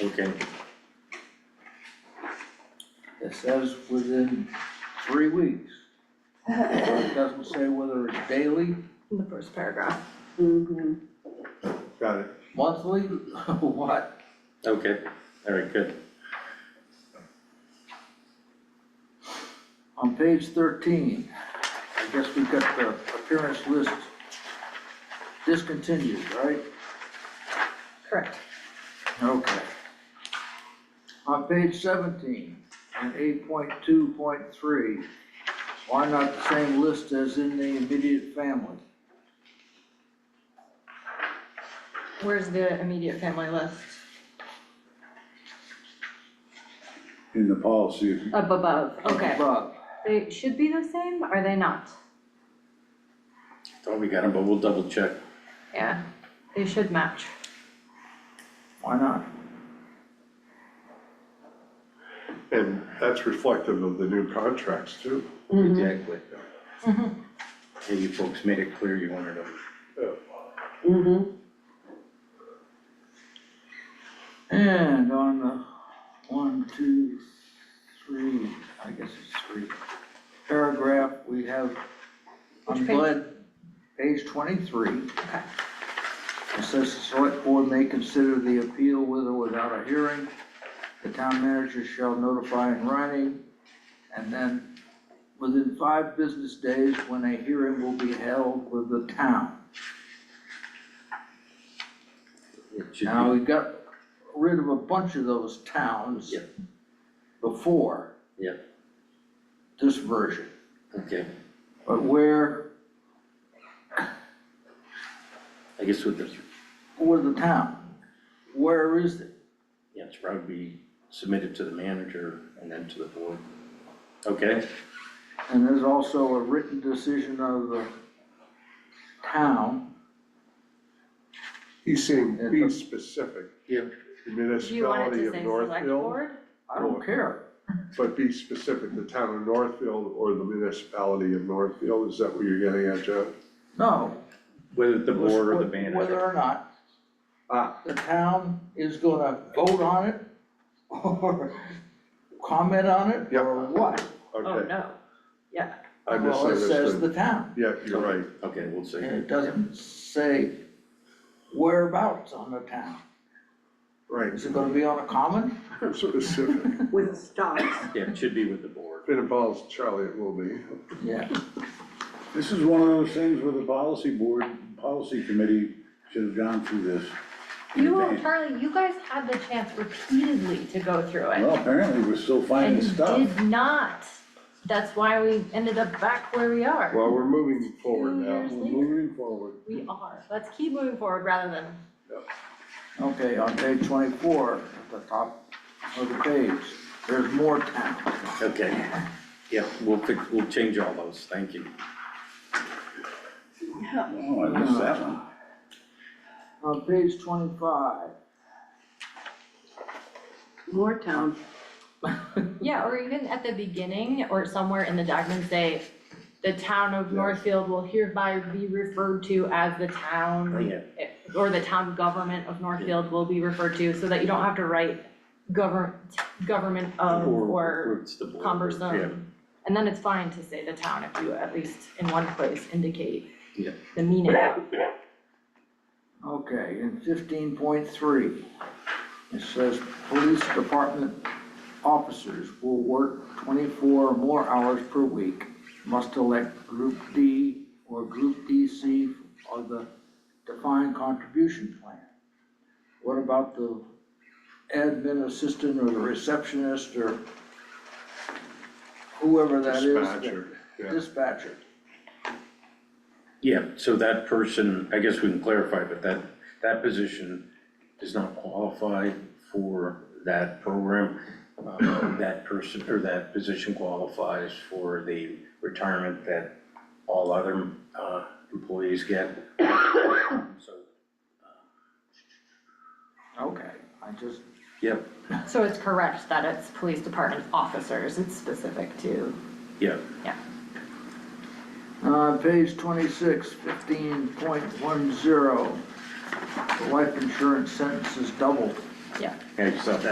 Okay, It says within three weeks. But it doesn't say whether it's daily, in the first paragraph. Got it. monthly, what? okay, all right, good. On page thirteen, I guess we've got the appearance list discontinued, right? Correct. Okay. On page seventeen and eight point two point three, why not the same list as in the immediate family? Where's the immediate family list? In the policy, Up above, okay. Above. They should be the same, are they not? Thought we got them, but we'll double check. Yeah, they should match. why not? and that's reflective of the new contracts too. Exactly. Yeah, you folks made it clear you wanted them. And on the one, two, three, I guess it's three, paragraph, we have, I'm Which page? glad, page twenty-three. Okay. It says the select board may consider the appeal with or without a hearing. The town manager shall notify in writing. And then within five business days, when a hearing will be held with the town. It should be- Now, we got rid of a bunch of those towns. Yep. Before. Yep. This version, Okay, but where I guess with the, where the town? Where is it? yeah, it's probably submitted to the manager and then to the board. Okay, And there's also a written decision of the town. He's saying Yeah. be specific. Yeah. Do The you want it Municipality to of say select Northfield, board? I don't care. but be specific, the town of Northfield or the municipality of Northfield, is that what you're getting at, John? No. whether the board or the Whether manager. or not Ah, the town is gonna vote on it or comment on it Yep. or what. Oh, okay, no. Yeah, I Well, it says misunderstood. the town. Yeah, you're right, Okay, we'll see. And it doesn't say whereabouts on the town. right, Is it gonna be on a common? specific. with stocks. Yeah, it should be with the board. It involves Charlie, it will be. Yeah. This is one of those things where the policy board, policy committee should have gone through this. in you, advance. Charlie, you guys had the chance repeatedly to go through it. Well, apparently we're still finding And you stuff. did not. That's why we ended up back where we are. Well, we're moving forward now. years. We're moving forward. We are. Let's keep moving forward rather than Okay, on page twenty-four, at the top of the page, there's more town. Okay, yeah, we'll fix, we'll change all those, thank you. Oh, I missed that one. On page twenty-five, More town. Yeah, or even at the beginning or somewhere in the document say, the town of Northfield will hereby be referred to as the Oh, town. yeah, Or the town government of Northfield will be referred to, so that you don't have to write govern, government of or it's the board, yeah. cumbersome. And then it's fine to say the town if you at least in one place indicate Yeah. the meaning. okay, in fifteen point three, it says police department officers will work twenty-four or more hours per week, must elect group D or group DC or the defined contribution plan. What about the admin assistant or the receptionist or whoever that is? that- Dispatcher, yeah. Dispatcher. Yeah, so that person, I guess we can clarify, but that, that position does not qualify for that program. Um, That person, or that position qualifies for the retirement that all other uh, employees get. So, Okay, I just, yep, So it's correct that it's police department officers, it's specific to yep, uh, page twenty-six, fifteen point one zero. The life insurance sentence is doubled. Yeah. And I just thought that